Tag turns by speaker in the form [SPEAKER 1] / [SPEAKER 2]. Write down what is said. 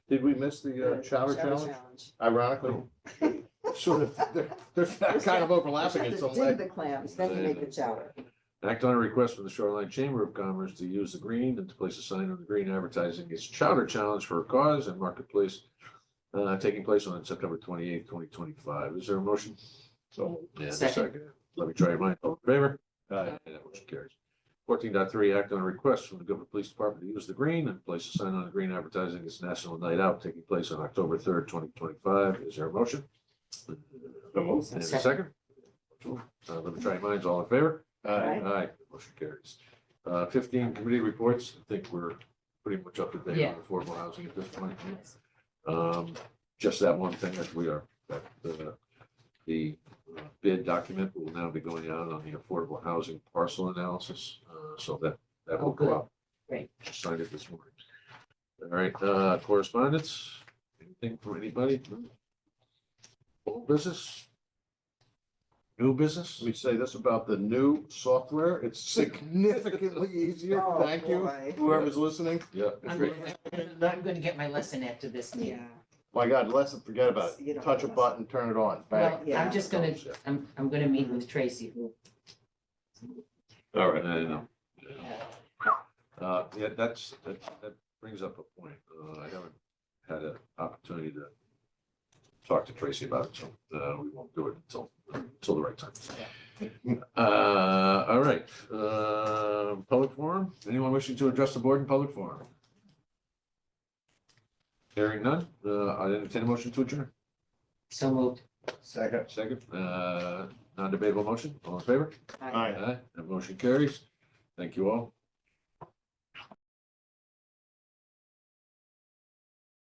[SPEAKER 1] Did we miss the uh, chowder challenge? Ironically, sort of, they're, they're kind of overlapping in some way.
[SPEAKER 2] Dig the clams, then you make the chowder.
[SPEAKER 3] Act on a request from the Shoreline Chamber of Commerce to use the green and to place a sign on the green advertising its chowder challenge for a cause and marketplace. Uh, taking place on September twenty eighth, twenty twenty five. Is there a motion? So, yeah, a
[SPEAKER 2] Second.
[SPEAKER 3] second. Let me try your mind. All in favor?
[SPEAKER 1] Aye.
[SPEAKER 3] And that motion carries. Fourteen point three. act on a request from the Guilford Police Department to use the green and place a sign on the green advertising its National Night Out taking place on October third, twenty twenty five. Is there a motion? And a second? Uh, let me try your minds. All in favor?
[SPEAKER 1] Aye.
[SPEAKER 3] Aye, motion carries. Uh, fifteen committee reports, I think we're pretty much up to date
[SPEAKER 4] Yeah.
[SPEAKER 3] on affordable housing at this point. Um, just that one thing that we are, that, uh, the uh, bid document will now be going out on the affordable housing parcel analysis, uh, so that, that will
[SPEAKER 4] Oh, good.
[SPEAKER 3] go out.
[SPEAKER 4] Great.
[SPEAKER 3] Just Signed it this morning. All right, uh, correspondence, anything from anybody? Old business? New business?
[SPEAKER 1] Let me say this about the new software. It's significantly easier.
[SPEAKER 2] Oh,
[SPEAKER 1] Thank you,
[SPEAKER 2] boy.
[SPEAKER 1] whoever's listening.
[SPEAKER 3] Yeah.
[SPEAKER 4] I'm
[SPEAKER 1] great.
[SPEAKER 4] gonna- I'm gonna- I'm gonna get my lesson after this
[SPEAKER 2] Yeah,
[SPEAKER 4] meeting.
[SPEAKER 1] My God, let's forget about
[SPEAKER 2] You
[SPEAKER 1] it.
[SPEAKER 2] don't
[SPEAKER 1] Touch a
[SPEAKER 2] have to.
[SPEAKER 1] button, turn it on. Bang.
[SPEAKER 4] Well, I'm just gonna, I'm, I'm gonna meet with Tracy, who,
[SPEAKER 3] All right. I know. Uh, yeah, that's, that, that brings up a point. Uh, I haven't had an opportunity to talk to Tracy about it, so, uh, we won't do it until, until the right time. Uh, all right, uh, public forum? Anyone wishing to address the board in public forum? Hearing none, uh, I entertain a motion to adjourn.
[SPEAKER 4] so moved.
[SPEAKER 1] Second.
[SPEAKER 3] Second, uh, non-debatable motion, all in favor?
[SPEAKER 2] I-
[SPEAKER 1] Aye.
[SPEAKER 3] Aye, that motion carries. Thank you all.